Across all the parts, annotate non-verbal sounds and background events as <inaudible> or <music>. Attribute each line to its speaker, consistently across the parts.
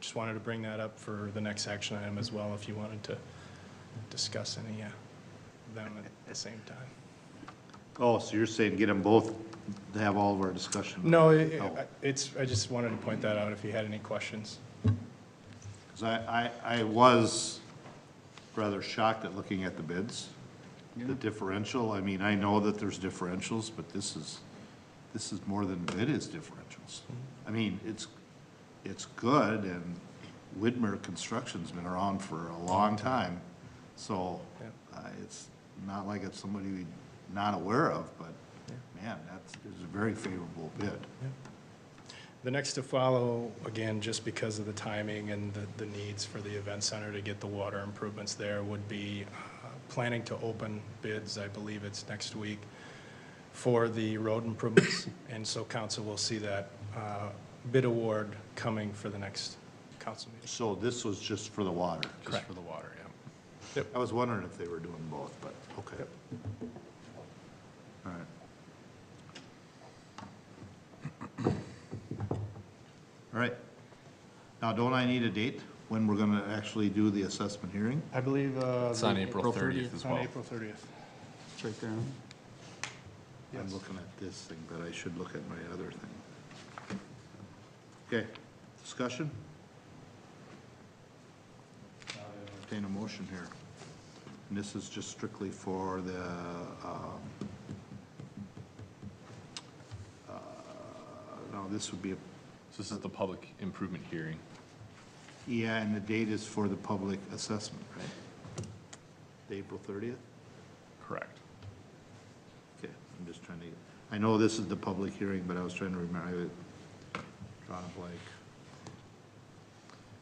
Speaker 1: Just wanted to bring that up for the next action item as well, if you wanted to discuss any uh, of them at the same time.
Speaker 2: Oh, so you're saying get them both to have all of our discussion?
Speaker 1: No, it-
Speaker 2: Oh.
Speaker 1: it's, I just wanted to point that out if you had any questions.
Speaker 2: Because I, I, I was rather shocked at looking at the bids, the differential. I mean, I know that there's differentials, but this is, this is more than it is differentials. I mean, it's, it's good, and Widmer Construction's been around for a long time, so
Speaker 1: Yeah.
Speaker 2: uh, it's not like it's somebody we're not aware of, but man, that's, it's a very favorable bid.
Speaker 1: The next to follow, again, just because of the timing and the, the needs for the event center to get the water improvements there, would be uh, planning to open bids, I believe it's next week, for the road improvements. And so council will see that uh, bid award coming for the next council meeting.
Speaker 2: So this was just for the water?
Speaker 1: Correct.
Speaker 3: the water, yeah.
Speaker 2: I was wondering if they were doing both, but, okay. All right. All right. Now, don't I need a date when we're gonna actually do the assessment hearing?
Speaker 1: I believe. uh,
Speaker 3: It's on the- April April 30th 30th. as well.
Speaker 1: On April 30th.
Speaker 4: It's right there.
Speaker 2: I'm looking at this thing, but I should look at my other thing. Okay, discussion? Entertain a motion here. And this is just strictly for the, um, uh, no, this would be, a
Speaker 3: So this is the public improvement hearing.
Speaker 2: yeah, and the date is for the public assessment, right? The April thirtieth?
Speaker 3: Correct.
Speaker 2: Okay, I'm just trying to, I know this is the public hearing, but I was trying to remember, I drawn a blank.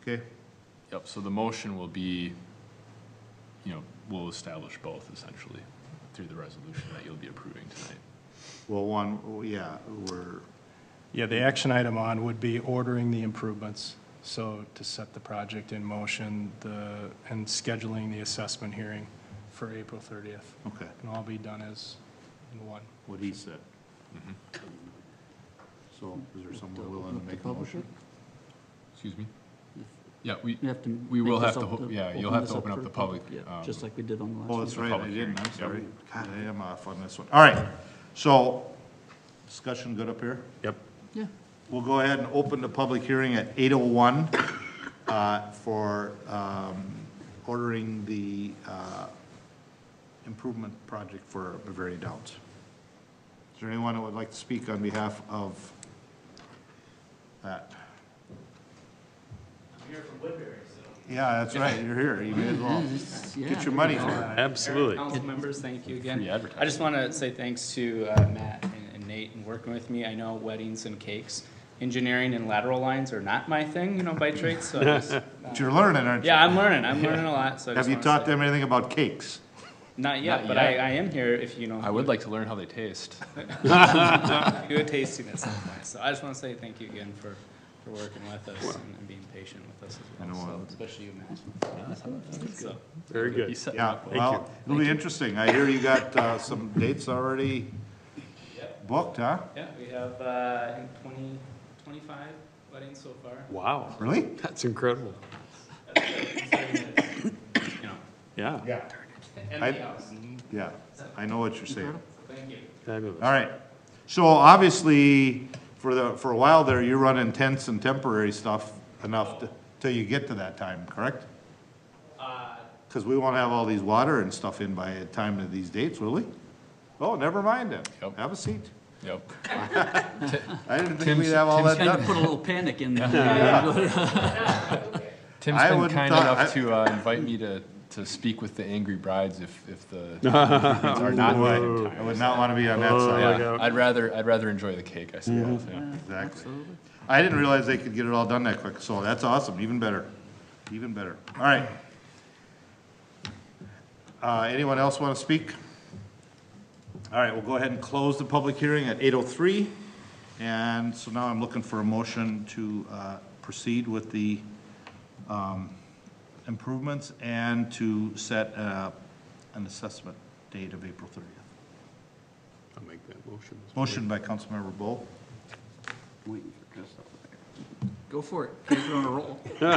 Speaker 2: Okay,
Speaker 3: Yep, so the motion will be, you know, we'll establish both essentially through the resolution that you'll be approving tonight.
Speaker 2: well, one, oh, yeah, we're,
Speaker 1: Yeah, the action item on would be ordering the improvements. So to set the project in motion, the, and scheduling the assessment hearing for April 30th.
Speaker 2: okay,
Speaker 1: Can all be done as one.
Speaker 2: what he said. Mm-hmm. So is there someone willing to make a motion?
Speaker 3: Excuse me? Yeah, we,
Speaker 4: You have to.
Speaker 3: We
Speaker 4: make
Speaker 3: will
Speaker 4: this
Speaker 3: have to
Speaker 4: up
Speaker 3: ho- yeah, you'll have
Speaker 4: this
Speaker 3: to open up
Speaker 4: for
Speaker 3: the public,
Speaker 4: Yeah,
Speaker 3: um,
Speaker 4: just like we did on the last.
Speaker 2: Oh,
Speaker 4: one.
Speaker 2: that's
Speaker 3: the
Speaker 2: right, I
Speaker 3: public
Speaker 2: didn't,
Speaker 3: hearing,
Speaker 2: I'm
Speaker 3: yep.
Speaker 2: sorry. God, I am off on this one. All right, so, discussion good up here?
Speaker 3: Yep.
Speaker 4: Yeah,
Speaker 2: We'll go ahead and open the public hearing at 8:01 uh, for um, ordering the uh, improvement project for Bavaria Downs. Is there anyone that would like to speak on behalf of that? I'm here from Woodbury, so. Yeah, that's right, you're here, you may as well
Speaker 4: Yes, yeah.
Speaker 2: get your money's worth.
Speaker 5: Absolutely. Council members, thank you again.
Speaker 3: Free advertising.
Speaker 5: I just want to say thanks to uh, Matt and- and Nate and working with me. I know weddings and cakes, engineering and lateral lines are not my thing, you know, by trade, so. I just-
Speaker 2: But you're learning, aren't you?
Speaker 5: Yeah, I'm learning, I'm learning a lot, so. I
Speaker 2: Have
Speaker 5: just
Speaker 2: you
Speaker 5: wanna
Speaker 2: taught
Speaker 5: say-
Speaker 2: them anything about cakes?
Speaker 5: Not
Speaker 3: Not
Speaker 5: yet, but I,
Speaker 3: yet.
Speaker 5: I am here if you know.
Speaker 3: I would like to learn how they taste.
Speaker 5: Do a tasting at some point, so I just want to say thank you again for, for working with us and and being patient with us
Speaker 2: I
Speaker 5: as
Speaker 2: know,
Speaker 5: well,
Speaker 2: uh,
Speaker 5: so, especially you, Matt. So,
Speaker 6: Very
Speaker 3: You
Speaker 6: good.
Speaker 3: set
Speaker 2: Yeah,
Speaker 3: up.
Speaker 2: well, it'll be interesting. I hear you got uh, some dates already booked, huh?
Speaker 5: Yeah, we have, uh, I think twenty, twenty-five weddings so far.
Speaker 6: Wow,
Speaker 2: Really?
Speaker 6: that's incredible.
Speaker 5: You know,
Speaker 6: Yeah.
Speaker 2: Yeah.
Speaker 5: and
Speaker 2: I-
Speaker 5: the house.
Speaker 2: Yeah, I know what you're saying.
Speaker 5: Thank you.
Speaker 6: Fabulous.
Speaker 2: All right. So obviously, for the, for a while there, you're running tents and temporary stuff enough to- till you get to that time, correct?
Speaker 5: Uh,
Speaker 2: Because we won't have all these water and stuff in by the time of these dates, will we? Oh, never mind then.
Speaker 3: Yep.
Speaker 2: Have a seat.
Speaker 3: Yep.
Speaker 2: I didn't think
Speaker 3: Tim's-
Speaker 2: we'd have all that
Speaker 4: Kind of
Speaker 2: done.
Speaker 4: put a little panic
Speaker 3: <laughs>
Speaker 4: in there.
Speaker 3: Tim's
Speaker 2: I
Speaker 3: been
Speaker 2: wouldn't
Speaker 3: kind
Speaker 2: thought- I-
Speaker 3: enough to uh, invite me to, to speak with the angry brides if, if
Speaker 2: <laughs>
Speaker 3: the if the brides are not
Speaker 2: Ooh,
Speaker 3: invited.
Speaker 2: I would not want to be on that
Speaker 6: Oh,
Speaker 2: side.
Speaker 6: my God.
Speaker 3: Yeah, I'd rather, I'd rather enjoy the cake, I suppose,
Speaker 2: Mm-hmm.
Speaker 3: yeah.
Speaker 2: Exactly.
Speaker 4: Absolutely.
Speaker 2: I didn't realize they could get it all done that quick, so that's awesome, even better, even better. All right. Uh, anyone else want to speak? All right, we'll go ahead and close the public hearing at eight oh three. And so now I'm looking for a motion to, uh, proceed with the, um, improvements and to set, uh, an assessment date of April thirtieth.
Speaker 6: I'll make that motion.
Speaker 2: Motion by Councilmember Bo.
Speaker 4: Go for it, 'cause we're on a roll.